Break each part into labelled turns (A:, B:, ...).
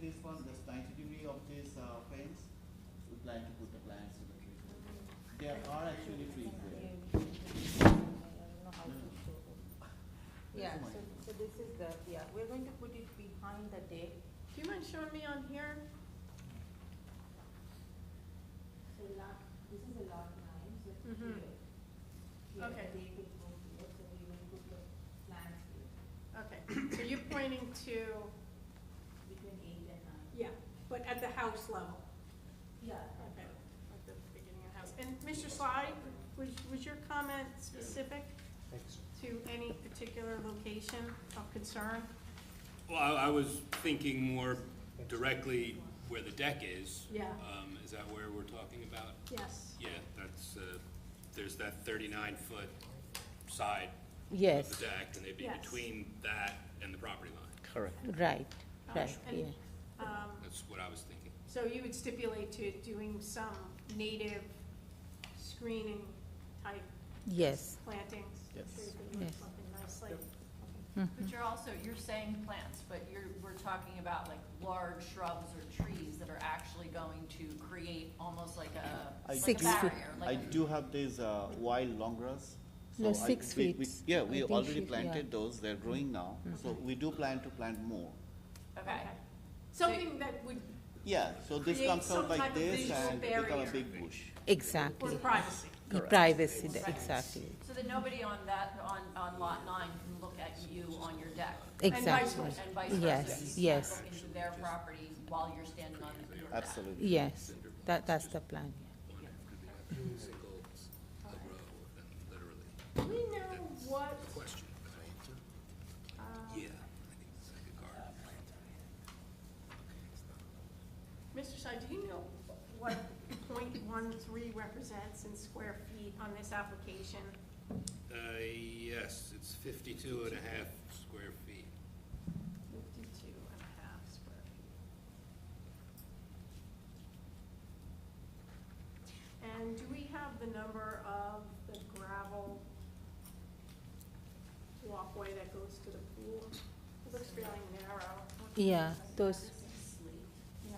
A: this one, just ninety degree of this uh, fence, we'd like to put the plants in the tree. There are actually trees there.
B: Yeah,
A: That's
B: so,
A: mine.
B: so this is the, yeah, we're going to put it behind the deck.
C: Do you mind showing me on here?
B: So lot, this is a lot nine, so it's
C: Mhm.
B: here. Here,
C: Okay.
B: the deck will go here, so we will put the plants here,
C: Okay, so you're pointing to,
B: between eight and nine.
C: yeah, but at the house level.
B: Yeah.
C: Okay, at the beginning of the house. And Mr. Sly, was, was your comment specific to any particular location of concern?
D: Well, I, I was thinking more directly where the deck is.
C: Yeah.
D: Um, is that where we're talking about?
C: Yes.
D: Yeah, that's, uh, there's that thirty-nine foot side of
E: Yes,
D: the deck, and they'd be
C: Yes.
D: between that and the property line.
E: right, right,
C: And,
E: yeah.
C: Um,
D: That's what I was thinking.
C: So you would stipulate to doing some native screening type
E: Yes,
C: plantings?
A: Yes.
C: So you could look
E: Yes.
C: Something nicely.
F: But you're also, you're saying plants, but you're, we're talking about like large shrubs or trees that are actually going to create almost like a,
A: I
F: like
E: Six
F: a
A: do-
E: feet.
F: barrier.
A: I
F: Like,
A: do have these uh, wild long grass. So
E: No,
A: I-
E: six
A: we- we-
E: feet.
A: Yeah,
E: I
A: we
E: think
A: already
E: she- yeah. Mm-hmm.
A: planted those, they're growing now, so we do plan to plant more.
F: okay,
C: Something that would,
A: Yeah, so this
C: Create
A: comes
C: some
A: out like
C: type of
A: this
C: visual
A: and become a
C: barrier.
A: big bush.
C: for
E: exactly.
C: privacy.
E: The Privacy, the-
F: Right.
E: exactly,
F: so that nobody on that, on, on lot nine can look at you on your deck.
E: exactly.
C: versa.
F: And vice
E: Yes,
F: versa, you can't
E: yes.
F: look into their property while you're standing on your deck.
A: Absolutely.
E: Yes, that, that's the plan.
D: Single, a row, and literally,
C: Do we know what,
D: question. Yeah. I think it's like a garden.
C: Mr. Sy, do you know what point one three represents in square feet on this application?
D: Uh, yes, it's fifty-two and a half square feet.
C: Fifty-two and a half square feet. And do we have the number of the gravel walkway that goes to the pool? It looks fairly narrow.
E: Yeah, those,
C: Yeah.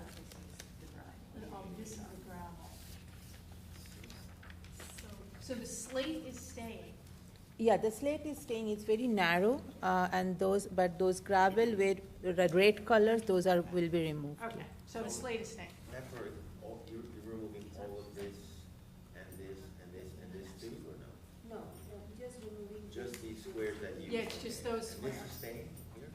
C: Oh, this is the gravel. So, so the slate is staying?
E: yeah, the slate is staying, it's very narrow, uh, and those, but those gravel with the red colors, those are, will be removed.
C: Okay, so the slate is staying.
G: After, all, you're, you're removing all of this, and this, and this, and this too, or no?
B: No, no, just removing. uh,
G: Just these squares that you.
C: Yeah, it's just those
G: And this
C: squares.
G: is staying here?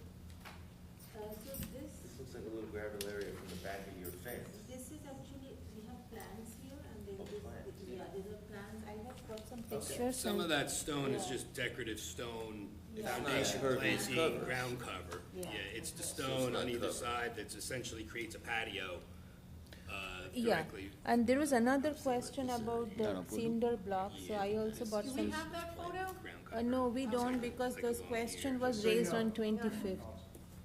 B: Uh, so this,
G: This looks like a little gravel area from the back of your fence.
B: this is actually, we have plants here and then
G: Oh,
B: this,
G: plants.
B: yeah, these are plants. I have got some
G: Okay.
B: pictures.
D: Some of
B: and-
D: that stone is
B: Yeah.
D: just decorative stone,
B: It's not
D: foundation
G: covered, it's
D: planting,
G: covered.
D: ground cover.
B: Yeah.
D: Yeah, it's the
G: So it's
D: stone
G: not
D: on either
G: covered.
D: side that essentially creates a patio, uh,
E: Yeah,
D: directly.
E: and there was another question about the cinder blocks, so I also bought
C: Do we
E: some.
C: have that photo?
D: ground
E: Uh,
D: cover.
E: no, we don't, because
D: Like a
E: those
D: long
E: question
D: ear.
E: was raised on twenty-fifth.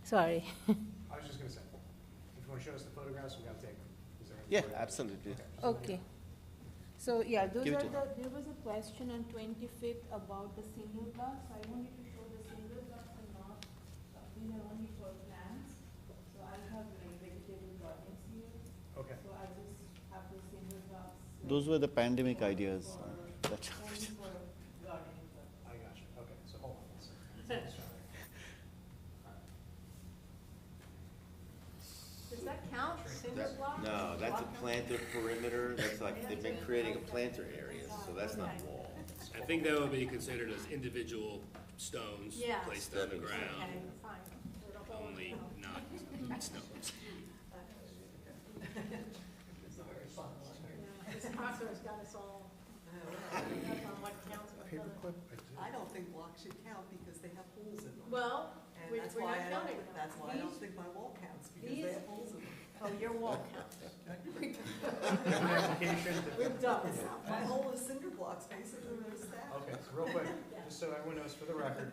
E: Sorry.
H: I was just gonna say, if you wanna show us the photographs, we gotta take them. Is there any
A: Yeah,
H: photographs?
A: absolutely.
H: Okay, just let me know.
E: Okay. So, yeah, those
A: Give it
E: are
A: to
E: the, there was a question on twenty-fifth about the single blocks. I wanted to show the single blocks and not, uh, these are only for plants. So I have like, vegetable gardens here,
H: Okay.
E: so I just have the single blocks. like,
A: Those were the pandemic ideas. uh, that-
E: Only for gardening purpose.
H: I got you, okay, so hold on. one second.
C: Does that count, cinder block?
G: No, that's a planter perimeter, that's like, they've been creating a planter area, so that's not wall.
D: I think that would be considered as individual stones
C: Yeah.
D: placed on the
G: Stepping
C: Okay,
D: ground,
C: fine.
D: only not stones.
C: Yeah, This process got us all, that's on what counts for color.
I: I don't think blocks should count because they have holes in them.
C: Well,
I: And
C: we-
I: that's
C: we're
I: why
C: not
I: I don't,
C: counting
I: think-
C: them.
I: that's why I don't
C: These-
I: think my wall counts because
C: these-
I: they have holes in them.
C: Oh, your wall counts.
H: An application that-
C: We're done.
I: It's not, my hole is cinder blocks basically, they're stacked.
H: Okay, so real quick, just so everyone knows for the record,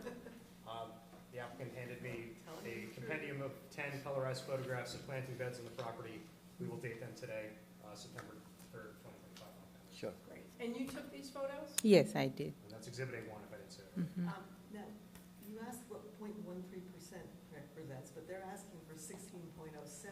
H: um, the applicant handed me a compendium of ten colorized photographs of planting beds on the property. We will date them today, uh, September third, twenty twenty-five.
A: Sure.
C: Great. And you took these photos?
E: Yes, I did.
H: And that's exhibit A one, if I didn't say it.
I: Um, Now, you asked what point one three percent represents, but they're asking for sixteen point oh seven.